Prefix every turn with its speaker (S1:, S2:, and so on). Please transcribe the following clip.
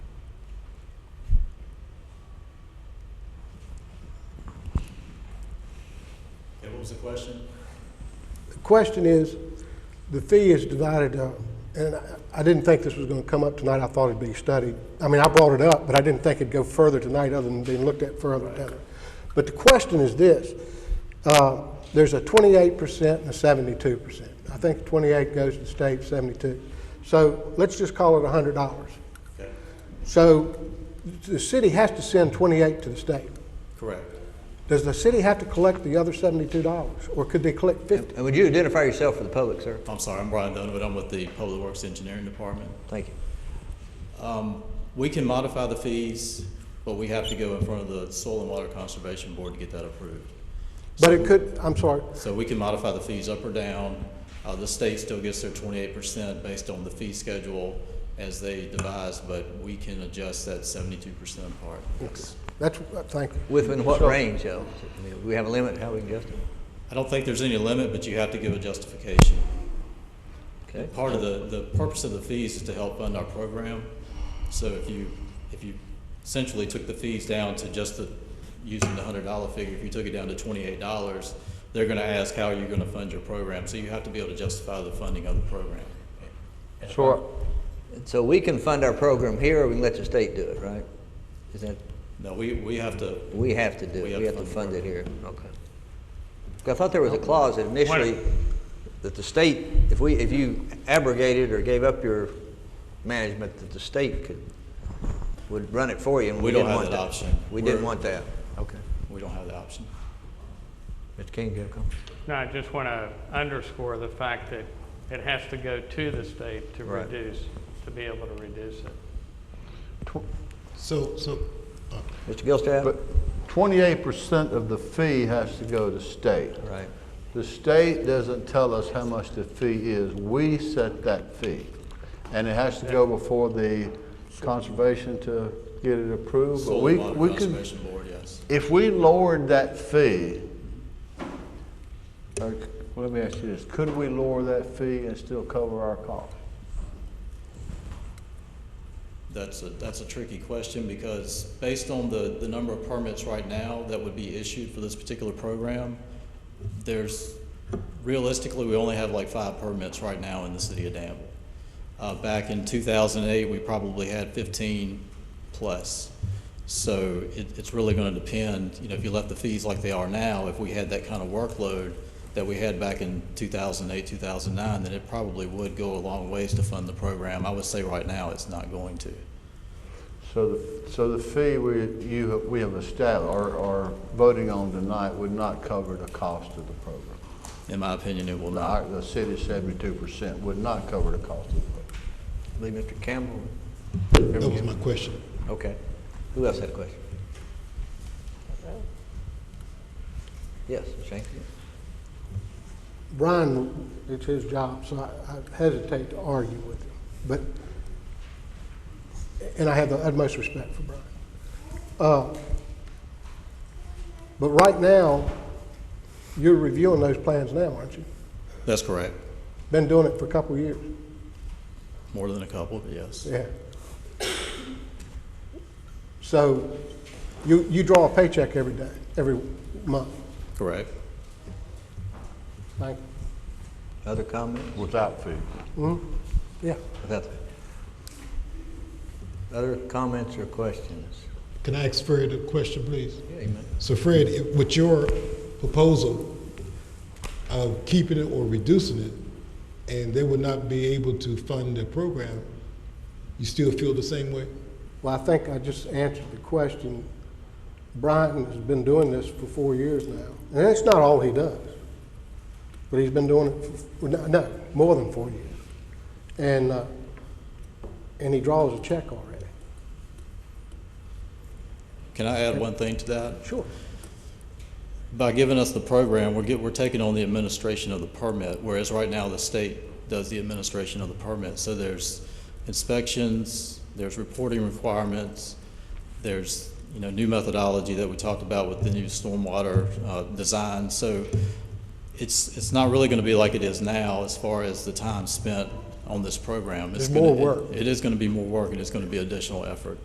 S1: was the question?
S2: The question is, the fee is divided up, and I- I didn't think this was going to come up tonight. I thought it'd be studied. I mean, I brought it up, but I didn't think it'd go further tonight other than being looked at further down. But the question is this, uh, there's a 28% and a 72%. I think 28 goes to the state, 72. So let's just call it $100.
S1: Okay,
S2: So the city has to send 28 to the state.
S1: correct.
S2: Does the city have to collect the other $72, or could they collect 50?
S3: And would you identify yourself for the public, sir?
S1: I'm sorry, I'm Brian Donovan, I'm with the Public Works Engineering Department.
S3: Thank you.
S1: We can modify the fees, but we have to go in front of the Soil and Water Conservation Board to get that approved.
S2: But it could, I'm sorry,
S1: So we can modify the fees up or down. Uh, the state still gets their twenty-eight percent based on the fee schedule as they devise, but we can adjust that seventy-two percent part.
S2: that's, uh, thank you.
S3: Within what
S2: So-
S3: range, though? I mean, We have a limit how we can adjust it?
S1: I don't think there's any limit, but you have to give a justification.
S3: Okay.
S1: Part of the, the purpose of the fees is to help fund our program. So if you, if you essentially took the fees down to just the, using the hundred dollar figure, if you took it down to twenty-eight dollars, they're gonna ask, how are you gonna fund your program? So you have to be able to justify the funding of the program.
S3: So, so we can fund our program here, or we can let the state do it, right? Is that,
S1: No, we, we have to,
S3: we have to do
S1: We
S3: it,
S1: have
S3: we
S1: to
S3: have to
S1: fund
S3: fund
S1: the
S3: it here, okay. 'Cause I thought there was a clause that initially, that the state, if we, if you abrogated or gave up your management, that the state could, would run it for you, and
S1: We
S3: we
S1: don't
S3: didn't
S1: have
S3: want that.
S1: that option.
S3: We didn't
S1: We're-
S3: want that, okay.
S1: we don't have the option.
S3: Mr. King, you have a comment?
S4: No, I just want to underscore the fact that it has to go to the state to
S3: Right.
S4: reduce, to be able to reduce it.
S5: So, so, uh,
S3: Mr. Gilstrap?
S6: But twenty-eight percent of the fee has to go to state.
S3: Right.
S6: The state doesn't tell us how much the fee is. We set that fee. And it has to go before the conservation to get it approved. But
S1: Soil
S6: we,
S1: and Water
S6: we could,
S1: Conservation Board, yes.
S6: if we lowered that fee, or, let me ask you this, could we lower that fee and still cover our cost?
S1: That's a, that's a tricky question because based on the, the number of permits right now that would be issued for this particular program, there's, realistically, we only have like five permits right now in the city of Danville. Uh, back in two thousand and eight, we probably had fifteen plus. So it, it's really gonna depend, you know, if you left the fees like they are now, if we had that kind of workload that we had back in two thousand and eight, two thousand and nine, then it probably would go a long ways to fund the program. I would say right now, it's not going to.
S6: So the, so the fee we, you, we have established, or, or voting on tonight would not cover the cost of the program.
S1: In my opinion, it will
S6: Our-
S1: not.
S6: The city seventy-two percent would not cover the cost of the
S3: I believe Mr. Campbell.
S5: that was my question.
S3: Okay. Who else had a question? Yes, Shane?
S2: Brian, it's his job, so I I hesitate to argue with him, but, and I have the utmost respect for Brian. Uh, But right now, you're reviewing those plans now, aren't you?
S1: That's correct.
S2: Been doing it for a couple of years,
S1: More than a couple, but yes.
S2: yeah. So you, you draw a paycheck every day, every month,
S1: Correct.
S2: like,
S3: Other comments?
S6: without fee.
S2: yeah.
S3: Without- Other comments or questions?
S5: Can I ask Fred a question, please?
S3: Yeah, Amen.
S5: So Fred, if- with your proposal of keeping it or reducing it, and they would not be able to fund the program, you still feel the same way?
S2: Well, I think I just answered the question. Brian has been doing this for four years now, and it's not all he does, but he's been doing it for, no, no more than four years, and uh, and he draws a check already.
S1: Can I add one thing to that?
S2: Sure.
S1: By giving us the program, we're get, we're taking on the administration of the permit, whereas right now the state does the administration of the permit. So there's inspections, there's reporting requirements, there's, you know, new methodology that we talked about with the new stormwater, uh, design. So it's, it's not really gonna be like it is now as far as the time spent on this program. It's
S2: There's more
S1: gonna-
S2: work.
S1: It is gonna be more work and it's gonna be additional effort.